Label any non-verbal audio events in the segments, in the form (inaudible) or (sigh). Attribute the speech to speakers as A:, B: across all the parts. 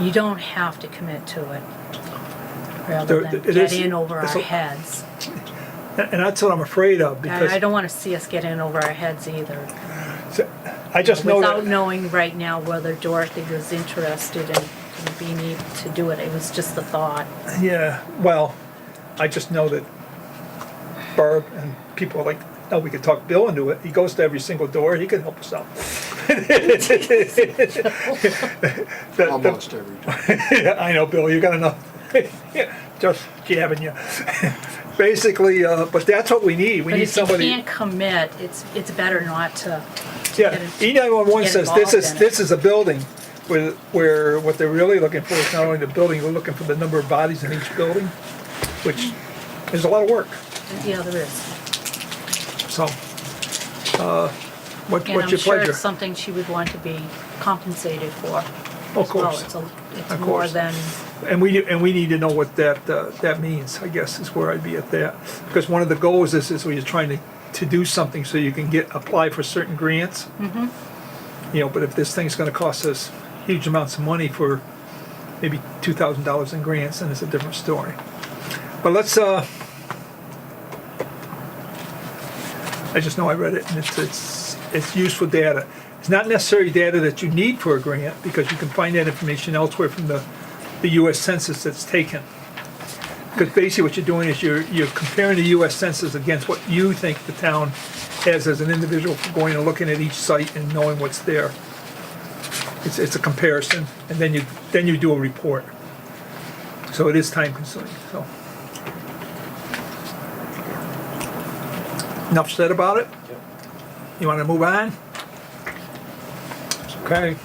A: you don't have to commit to it, rather
B: There-
A: than
B: it
A: get
B: is-
A: in over
B: it's
A: our
B: a-
A: heads.
B: And and that's what I'm afraid of
A: I I
B: because
A: don't want to see us get in over our heads either,
B: I just know
A: without
B: that,
A: knowing right now whether Dorothy was interested in in being able to do it. It was just the thought.
B: yeah, well, I just know that Barb and people are like, no, we could talk Bill into it. He goes to every single door. He can help us out. (laughs) The- the-
C: Almost every time.
B: Yeah, I know, Bill, you got enough, (laughs) just jabbing you. (laughs) Basically, uh, but that's what we need, we
A: But
B: need
A: if you
B: somebody.
A: can't commit, it's, it's better not to. to
B: Yeah,
A: get in-
B: E nine-one-one
A: get
B: says this
A: involved
B: is,
A: in it.
B: this is a building where, where what they're really looking for is not only the building, we're looking for the number of bodies in each building, which is a lot of work,
A: Yeah, there is.
B: so. uh, What,
A: And
B: what's
A: I'm
B: your
A: sure
B: pleasure?
A: it's something she would want to be compensated for. as
B: Of
A: well.
B: course.
A: It's a- It's
B: Of
A: more
B: course.
A: than,
B: And we, and we need to know what that, uh, that means, I guess, is where I'd be at that. Because one of the goals is, is where you're trying to, to do something so you can get, apply for certain grants. You know, but if this thing's gonna cost us huge amounts of money for maybe two thousand dollars in grants, then it's a different story. But let's, uh, I just know I read it, and it's, it's, it's useful data. It's not necessarily data that you need for a grant, because you can find that information elsewhere from the, the US Census that's taken. Because basically what you're doing is you're, you're comparing the US Census against what you think the town has as an individual, for going and looking at each site and knowing what's there. It's, it's a comparison, and then you, then you do a report. So it is time consuming, so. Enough said about it? You wanna move on? Okay.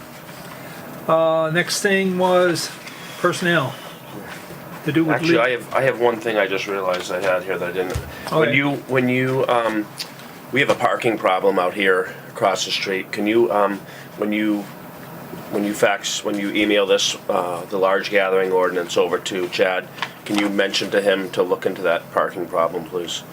B: Uh, next thing was personnel. To do with.
D: Actually,
B: leave.
D: I have I have one thing I just realized I had here that I didn't. When
B: Okay.
D: you when you um, we have a parking problem out here across the street. Can you um, when you when you fax when you email this uh, the large gathering ordinance over to Chad? Can you mention to him to look into that parking problem, please?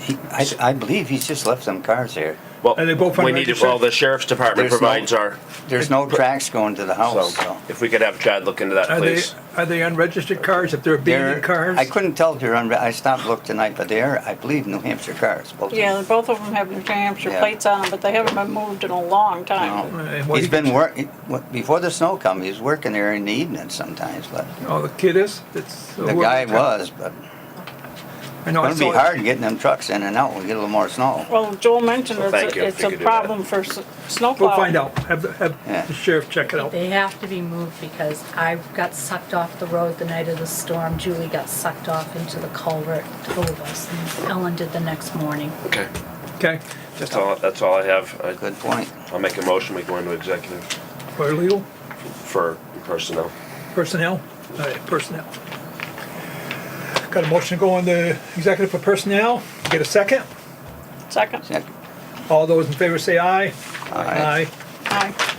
E: He, I, I believe he's just left some cars here.
D: Well,
B: Are they both
D: we need to, well
B: unregistered?
D: the sheriff's department
E: There's no-
D: provides our
E: There's no tracks going to the
D: so
E: house, so.
D: if we could have Chad look into that,
B: Are they,
D: please.
B: are they unregistered cars, if they're
E: They're-
B: abandoned cars?
E: I couldn't tell if they're on, I stopped, looked tonight, but they are, I believe, New Hampshire cars. both of them.
F: Yeah, both of them have New Hampshire
E: Yeah.
F: plates on them, but they haven't been moved in a long time.
B: Uh,
E: No.
B: what
E: He's
B: he-
E: been work, he- what- before the snow come, he was working there in the evening sometimes, but
B: Oh, the kid is? It's-
E: the guy was, but
B: I know, uh, I
E: it'll be
B: saw it.
E: hard getting them trucks in and out when we get a little more snow.
F: Well, Joel mentioned
D: Well,
F: it's,
D: thank you,
F: a-
D: if
F: it's
D: you
F: a
D: could do that.
F: problem for s- snowplow.
B: We'll find out, have, the-
E: Yeah.
B: have the sheriff check it out.
A: they have to be moved because I got sucked off the road the night of the storm. Julie got sucked off into the culvert, two of us, and Ellen did the next morning.
D: Okay,
B: Okay,
D: that's all. That's all I have. I,
E: Good point.
D: I'll make a motion. We go into executive
B: for legal,
D: for personnel.
B: personnel, all right, personnel. Got a motion to go on the executive for personnel, get a second?
F: Second,
E: Check.
B: All those in favor say aye.
E: Aye.
F: aye.